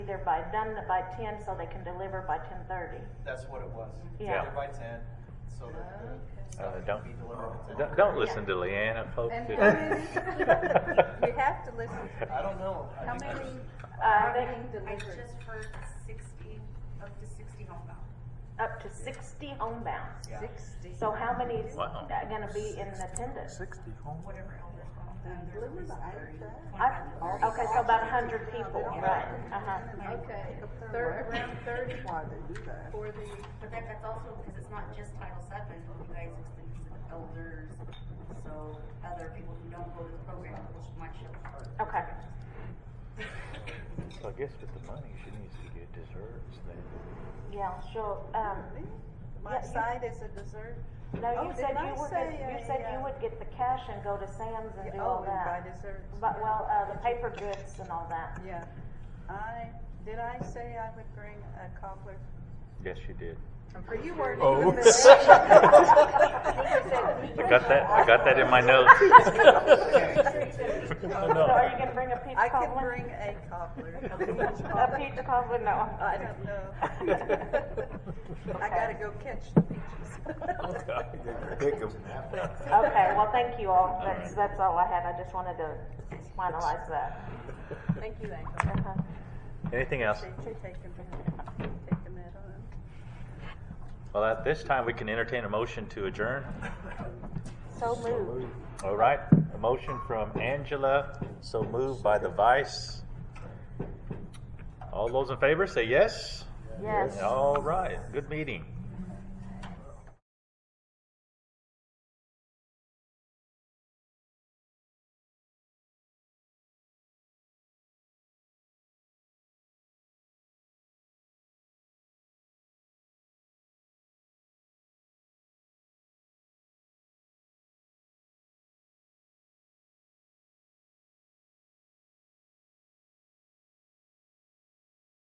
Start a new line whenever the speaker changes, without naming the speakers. either by them, that by ten, so they can deliver by ten thirty.
That's what it was.
Yeah.
They're by ten, so that
Oh.
the
Uh,
stuff
don't-
can be delivered at ten.
Don't, don't listen to Leanna, folks.
And
It-
how many- we have to listen to.
I don't know. I
How
think
many
there's-
are
Uh, they-
being
I
delivered?
just heard sixty, up to sixty homebound.
Up to sixty homebound.
Yeah.
Sixty.
So how many is
Wow.
that gonna be in attendance?
Sixty home.
whatever elders want.
uh,
I- Okay, so about a hundred people, right, uh-huh.
Okay, third, around thirty for the,
But that, that's also because it's not just Title VII, but you guys extend this to elders, so other people who don't go to the program, which might show up.
Okay,
So I guess with the money, she needs to get desserts then.
yeah, sure, um,
my side is a dessert.
no,
Oh,
you
did
said
I
you would,
say,
get- you
uh,
said
yeah.
you would get the cash and go to Sam's and do all
Oh, and buy
that.
desserts.
But, well, uh, the paper goods and all that.
Yeah, I, did I say I would bring a cobbler?
Yes, she did.
Are you weren't
Oh.
even there.
I got that, I got that in my notes.
So are you gonna bring a peach
I
cobbler?
can bring a cobbler.
A peach cobbler, no.
I don't know. I gotta go catch the peaches.
Okay, well, thank you all, that's,
right.
that's all I had, I just wanted to finalize that.
Thank you, Angela.
Uh-huh.
Anything else?
Appreciate you taking, taking that on.
Well, at this time, we can entertain a motion to adjourn.
So moved.
All right, a motion from Angela, so moved by the vice. All those in favor, say yes.
Yes.
All right, good meeting.